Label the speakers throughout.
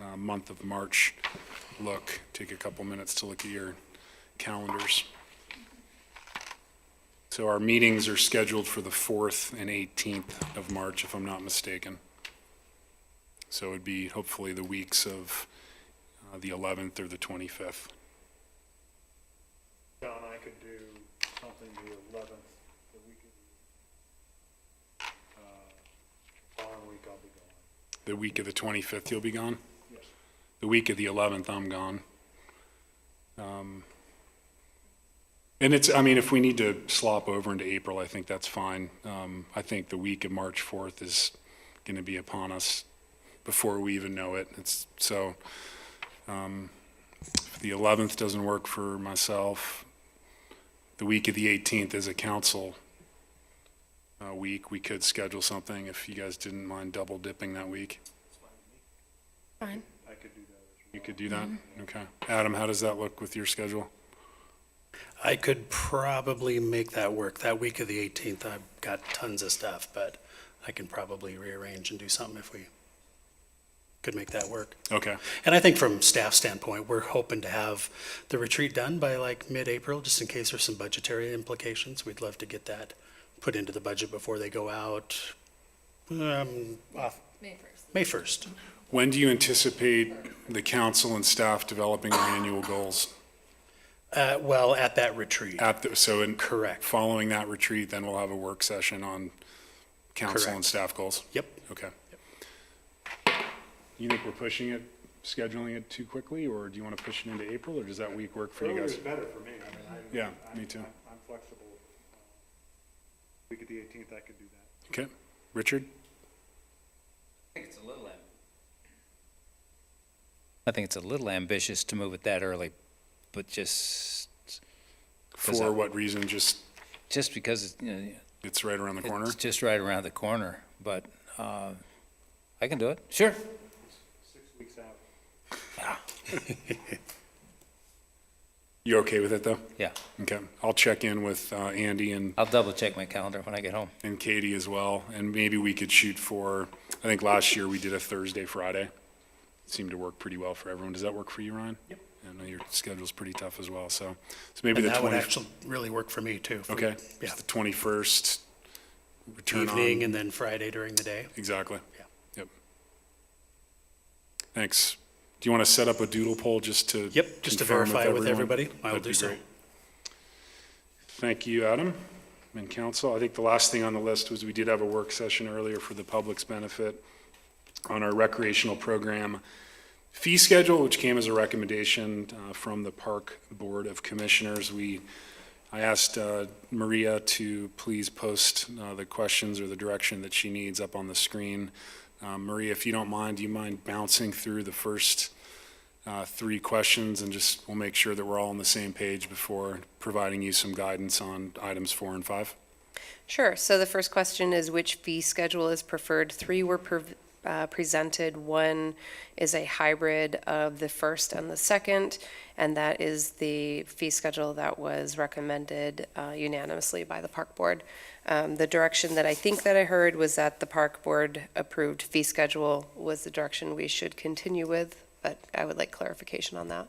Speaker 1: uh, month of March look. Take a couple minutes to look at your calendars. So our meetings are scheduled for the 4th and 18th of March, if I'm not mistaken. So it'd be hopefully the weeks of uh, the 11th or the 25th.
Speaker 2: John, I could do something the eleventh, the week of, uh, following week I'll be gone.
Speaker 1: The week of the 25th, you'll be gone?
Speaker 2: Yes.
Speaker 1: The week of the 11th, I'm gone. Um, And it's, I mean, if we need to slop over into April, I think that's fine. Um, I think the week of March 4th is going to be upon us before we even know it. It's, so, um, if the 11th doesn't work for myself, the week of the 18th is a council uh, week. We could schedule something if you guys didn't mind double dipping that week.
Speaker 3: Fine.
Speaker 2: I could do that.
Speaker 1: You could do that? Okay. Adam, how does that look with your schedule?
Speaker 4: I could probably make that work. That week of the 18th, I've got tons of stuff, but I can probably rearrange and do something if we could make that work.
Speaker 1: Okay,
Speaker 4: And I think from staff standpoint, we're hoping to have the retreat done by like mid-April, just in case there's some budgetary implications. We'd love to get that put into the budget before they go out, um, off,
Speaker 3: May first.
Speaker 4: May 1st.
Speaker 1: when do you anticipate the council and staff developing their annual goals?
Speaker 4: Uh, well, at that retreat,
Speaker 1: At, the- so in,
Speaker 4: correct.
Speaker 1: following that retreat, then we'll have a work session on council and
Speaker 4: Correct.
Speaker 1: staff goals?
Speaker 4: Yep.
Speaker 1: Okay. You think we're pushing it, scheduling it too quickly, or do you want to push it into April, or does that week work for you
Speaker 2: Earlier is
Speaker 1: guys?
Speaker 2: better for me, I mean, I.
Speaker 1: Yeah,
Speaker 2: I'm-
Speaker 1: me too.
Speaker 2: I'm I'm flexible. Uh, Week of the eighteenth, I could do that.
Speaker 1: Okay, Richard?
Speaker 5: I think it's a little. I think it's a little ambitious to move it that early, but just, Does
Speaker 1: For
Speaker 5: that-
Speaker 1: what reason? Just,
Speaker 5: just because it's, you know,
Speaker 1: it's right around the corner?
Speaker 5: it's just right around the corner, but, uh, I can do it, sure.
Speaker 2: Six weeks out.
Speaker 1: You okay with it, though?
Speaker 5: Yeah.
Speaker 1: Okay, I'll check in with uh, Andy and
Speaker 5: I'll double check my calendar when I get home.
Speaker 1: and Katie as well, and maybe we could shoot for, I think last year we did a Thursday, Friday. Seemed to work pretty well for everyone. Does that work for you, Ryan? Yep. I know your schedule's pretty tough as well, so, so maybe
Speaker 4: And
Speaker 1: the
Speaker 4: that would
Speaker 1: twenty,
Speaker 4: actually really work for me too. for-
Speaker 1: okay?
Speaker 4: Yeah.
Speaker 1: Just The twenty-first, return
Speaker 4: Evening
Speaker 1: on,
Speaker 4: and then Friday during the day.
Speaker 1: exactly.
Speaker 4: Yeah.
Speaker 1: Yep. Thanks. Do you want to set up a doodle poll just to?
Speaker 4: Yep, just to
Speaker 1: confirm
Speaker 4: verify with everybody,
Speaker 1: everyone?
Speaker 4: I will
Speaker 1: That'd
Speaker 4: do
Speaker 1: be
Speaker 4: so.
Speaker 1: great. Thank you, Adam, and council. I think the last thing on the list was we did have a work session earlier for the public's benefit on our recreational program fee schedule, which came as a recommendation uh, from the Park Board of Commissioners. We, I asked uh, Maria to please post uh, the questions or the direction that she needs up on the screen. Uh, Maria, if you don't mind, do you mind bouncing through the first uh, three questions, and just, we'll make sure that we're all on the same page before providing you some guidance on items four and five.
Speaker 3: Sure. So the first question is which fee schedule is preferred? Three were prev- uh, presented. One is a hybrid of the first and the second, and that is the fee schedule that was recommended uh, unanimously by the park board. Um, The direction that I think that I heard was that the park board approved fee schedule was the direction we should continue with, but I would like clarification on that.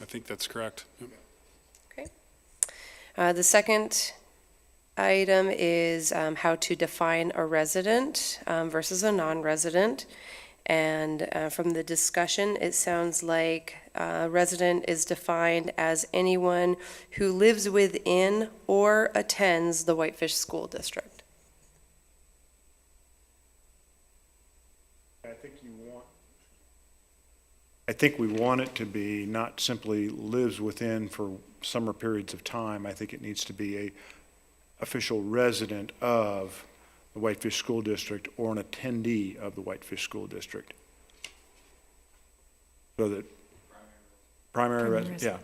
Speaker 1: I think that's correct. Yep.
Speaker 3: Uh, The second item is um, how to define a resident um, versus a non-resident. And uh, from the discussion, it sounds like uh, resident is defined as anyone who lives within or attends the Whitefish School District.
Speaker 2: I think you want. I think we want it to be not simply lives within for summer periods of time. I think it needs to be a official resident of the Whitefish School District or an attendee of the Whitefish School District. So that. Primary resident, yeah.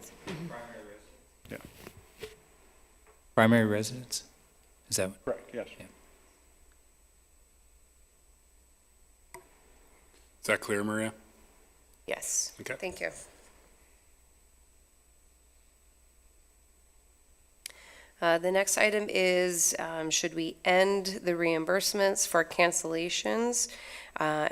Speaker 5: Primary residence? Is that,
Speaker 2: Correct, yes.
Speaker 1: Is that clear, Maria?
Speaker 3: Yes.
Speaker 1: Okay.
Speaker 3: Thank you. Uh, The next item is, um, should we end the reimbursements for cancellations? Uh,